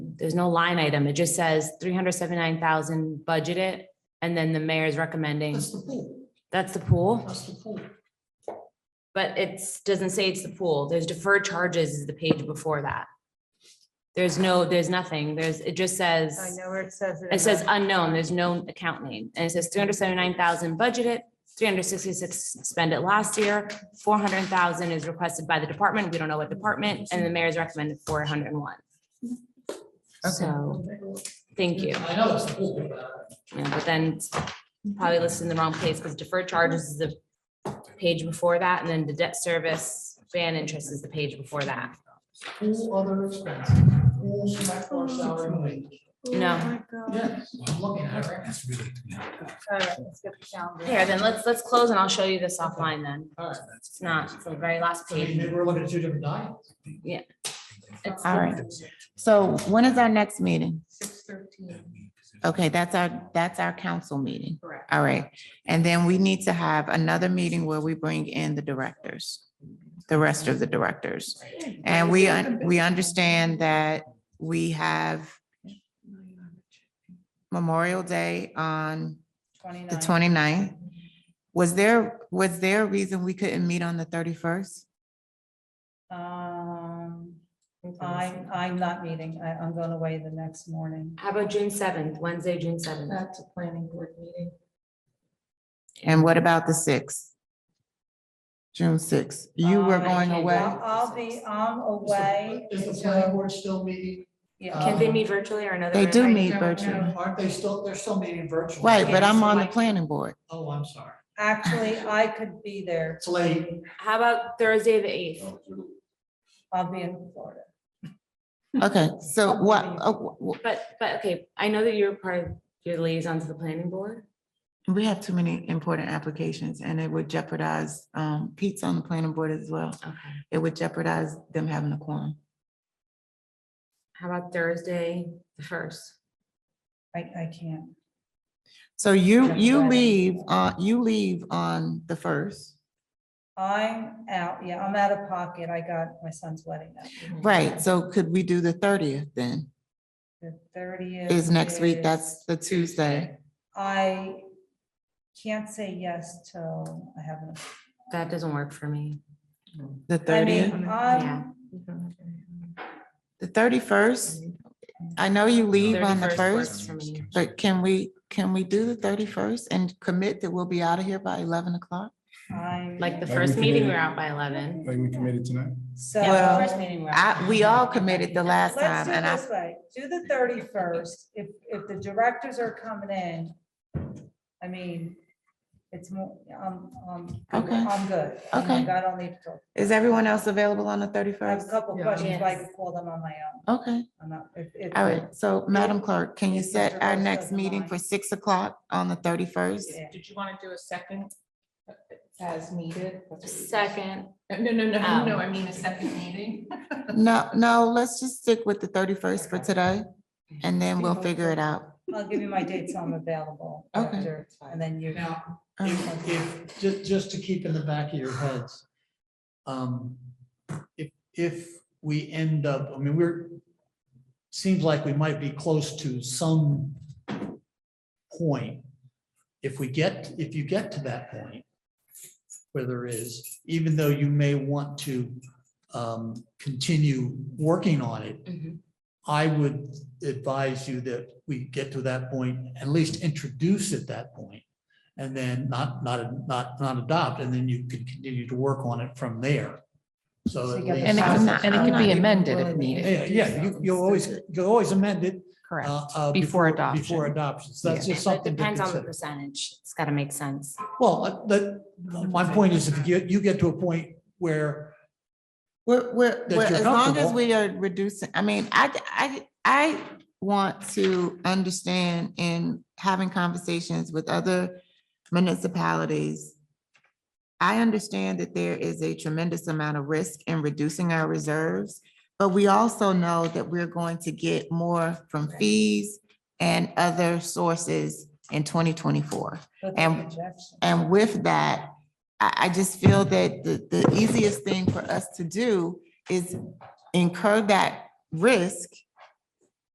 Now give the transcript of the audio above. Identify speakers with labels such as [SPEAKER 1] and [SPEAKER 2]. [SPEAKER 1] There's no line item. It just says three hundred seventy-nine thousand budgeted, and then the mayor's recommending,
[SPEAKER 2] That's the pool,
[SPEAKER 1] that's the pool.
[SPEAKER 2] that's the pool.
[SPEAKER 1] But it's, doesn't say it's the pool. There's deferred charges is the page before that. There's no, there's nothing. There's, it just says.
[SPEAKER 3] I know where it says.
[SPEAKER 1] It says unknown, there's no account name, and it says three hundred seventy-nine thousand budgeted, three hundred sixty-six spent it last year, four hundred thousand is requested by the department, we don't know what department, and the mayor's recommended four hundred and one. So, thank you,
[SPEAKER 2] I know it's the pool, but I-
[SPEAKER 1] Yeah, but then it's probably listed in the wrong place, because deferred charges is the page before that, and then the debt service, fan interest is the page before that.
[SPEAKER 2] pool other expenses, pool select board salary and wage.
[SPEAKER 1] No.
[SPEAKER 2] Yes, I'm looking at it right now.
[SPEAKER 1] Here, then let's, let's close and I'll show you this offline then,
[SPEAKER 2] All right.
[SPEAKER 1] it's not, it's the very last
[SPEAKER 2] So you
[SPEAKER 1] page.
[SPEAKER 2] mean we're looking at two different diets.
[SPEAKER 1] It's-
[SPEAKER 4] All right. So when is our next meeting?
[SPEAKER 3] Six thirteen,
[SPEAKER 4] Okay, that's our, that's our council meeting.
[SPEAKER 3] correct.
[SPEAKER 4] All right. And then we need to have another meeting where we bring in the directors, the rest of the directors. And we, un- we understand that we have Memorial Day on the 29th. Was there, was there a reason we couldn't meet on the thirty-first?
[SPEAKER 3] Um, I, I'm not meeting, I, I'm going away the next morning.
[SPEAKER 1] How about June seventh, Wednesday, June seventh?
[SPEAKER 3] That's a planning board meeting.
[SPEAKER 4] And what about the sixth? June sixth. You were
[SPEAKER 3] Um, I
[SPEAKER 4] going
[SPEAKER 1] can't do
[SPEAKER 4] away.
[SPEAKER 1] that.
[SPEAKER 3] I'll be, I'm away.
[SPEAKER 2] Is the
[SPEAKER 3] until-
[SPEAKER 2] planning board still meeting?
[SPEAKER 3] Yeah.
[SPEAKER 1] Can they meet virtually or another?
[SPEAKER 4] They do
[SPEAKER 1] way?
[SPEAKER 4] meet virtually.
[SPEAKER 2] Aren't they still, they're still meeting virtually?
[SPEAKER 4] Right, but I'm
[SPEAKER 1] so
[SPEAKER 4] on the
[SPEAKER 1] like-
[SPEAKER 4] planning board.
[SPEAKER 2] Oh, I'm sorry.
[SPEAKER 3] Actually, I could be there.
[SPEAKER 2] It's late.
[SPEAKER 1] How about Thursday, the eighth?
[SPEAKER 3] I'll be in Florida.
[SPEAKER 4] Okay, so what, oh, w-
[SPEAKER 1] But, but, okay, I know that you're part of, your liaison to the planning board.
[SPEAKER 4] w- we have too many important applications and it would jeopardize, um, Pete's on the planning board as well.
[SPEAKER 1] Okay.
[SPEAKER 4] It would jeopardize them having a quorum.
[SPEAKER 1] How about Thursday, the first?
[SPEAKER 3] I, I can't.
[SPEAKER 4] So you,
[SPEAKER 3] Yeah,
[SPEAKER 4] you
[SPEAKER 3] Friday.
[SPEAKER 4] leave, uh, you leave on the first.
[SPEAKER 3] I'm out, yeah, I'm out of pocket. I got my son's wedding that week.
[SPEAKER 4] Right, so could we do the thirtieth then?
[SPEAKER 3] The thirtieth.
[SPEAKER 4] Is next week, that's the Tuesday.
[SPEAKER 3] I can't say yes till I have an
[SPEAKER 1] That doesn't work for me.
[SPEAKER 4] The
[SPEAKER 3] I
[SPEAKER 4] thirtieth,
[SPEAKER 3] mean,
[SPEAKER 1] Yeah.
[SPEAKER 3] I'm,
[SPEAKER 4] the thirty-first? I know you leave on the
[SPEAKER 1] 31st works
[SPEAKER 4] first,
[SPEAKER 1] for me.
[SPEAKER 4] but can we, can we do the thirty-first and commit that we'll be out of here by eleven o'clock?
[SPEAKER 3] I'm.
[SPEAKER 1] Like the
[SPEAKER 5] Are we
[SPEAKER 1] first meeting, we're
[SPEAKER 5] committed?
[SPEAKER 1] out by eleven.
[SPEAKER 5] Like we committed tonight?
[SPEAKER 3] So.
[SPEAKER 4] Well,
[SPEAKER 1] First meeting, we're out.
[SPEAKER 4] I, we all committed the last
[SPEAKER 3] Let's
[SPEAKER 4] time
[SPEAKER 3] do
[SPEAKER 4] and
[SPEAKER 3] it
[SPEAKER 4] I,
[SPEAKER 3] this way. Do the thirty-first. If, if the directors are coming in, I mean, it's more, I'm, I'm,
[SPEAKER 4] Okay.
[SPEAKER 3] I'm good. I mean,
[SPEAKER 4] Okay.
[SPEAKER 3] Oh God, I'll need to,
[SPEAKER 4] is everyone else available on the
[SPEAKER 3] I have
[SPEAKER 4] thirty-first?
[SPEAKER 3] a couple
[SPEAKER 2] Yeah.
[SPEAKER 3] questions, but I
[SPEAKER 1] Yes.
[SPEAKER 3] can call them on my own.
[SPEAKER 4] Okay,
[SPEAKER 3] I'm not, if, if.
[SPEAKER 4] all right. So Madam Clerk, can you
[SPEAKER 3] If
[SPEAKER 4] set
[SPEAKER 3] Mr.
[SPEAKER 4] our
[SPEAKER 3] Rice
[SPEAKER 4] next
[SPEAKER 3] doesn't
[SPEAKER 4] meeting
[SPEAKER 3] mind.
[SPEAKER 4] for six o'clock on the thirty-first?
[SPEAKER 3] Yeah.
[SPEAKER 6] Did you want to do a second uh, as needed? That's what we-
[SPEAKER 1] Second,
[SPEAKER 6] Uh, No, no,
[SPEAKER 1] Oh.
[SPEAKER 6] no,
[SPEAKER 7] Um,
[SPEAKER 6] no, I mean a second meeting.
[SPEAKER 4] No, no, let's just stick with the thirty-first for today and then we'll figure it out.
[SPEAKER 3] I'll give you my dates I'm available
[SPEAKER 4] Okay.
[SPEAKER 3] after, and then you.
[SPEAKER 6] Now,
[SPEAKER 4] All right.
[SPEAKER 2] If, if, just, just to keep in the back of your heads. Um, if, if we end up, I mean, we're, seems like we might be close to some point. If we get, if you get to that point, where there is, even though you may want to, um, continue working on it,
[SPEAKER 1] Mhm.
[SPEAKER 2] I would advise you that we get to that point, at least introduce at that point, And then not, not, not, not adopt, and then you could continue to work on it from there. So. at least-
[SPEAKER 4] And it can- and it can be
[SPEAKER 7] amended if
[SPEAKER 2] Yeah,
[SPEAKER 7] needed.
[SPEAKER 2] Yeah, you, you always, you always amend it.
[SPEAKER 7] Correct.
[SPEAKER 2] uh, uh,
[SPEAKER 7] Before adoption.
[SPEAKER 2] Before adoption. So that's
[SPEAKER 7] Yeah.
[SPEAKER 2] just
[SPEAKER 1] it
[SPEAKER 2] something to
[SPEAKER 1] depends on the
[SPEAKER 2] consider.
[SPEAKER 1] percentage. It's gotta make sense.
[SPEAKER 2] Well, uh, the, my point is if you, get- you get to a point where,
[SPEAKER 4] We're, we're,
[SPEAKER 2] That
[SPEAKER 4] we're-
[SPEAKER 2] you're
[SPEAKER 4] as long as
[SPEAKER 2] comfortable.
[SPEAKER 4] we are reducing, I mean, I, I, I want to understand in having conversations with other municipalities. I understand that there is a tremendous amount of risk in reducing our reserves, but we also know that we're going to get more from fees and other sources in twenty twenty-four.
[SPEAKER 3] with the
[SPEAKER 4] And-
[SPEAKER 3] projection.
[SPEAKER 4] And with that, I, I just feel that the, the easiest thing for us to do is incur that risk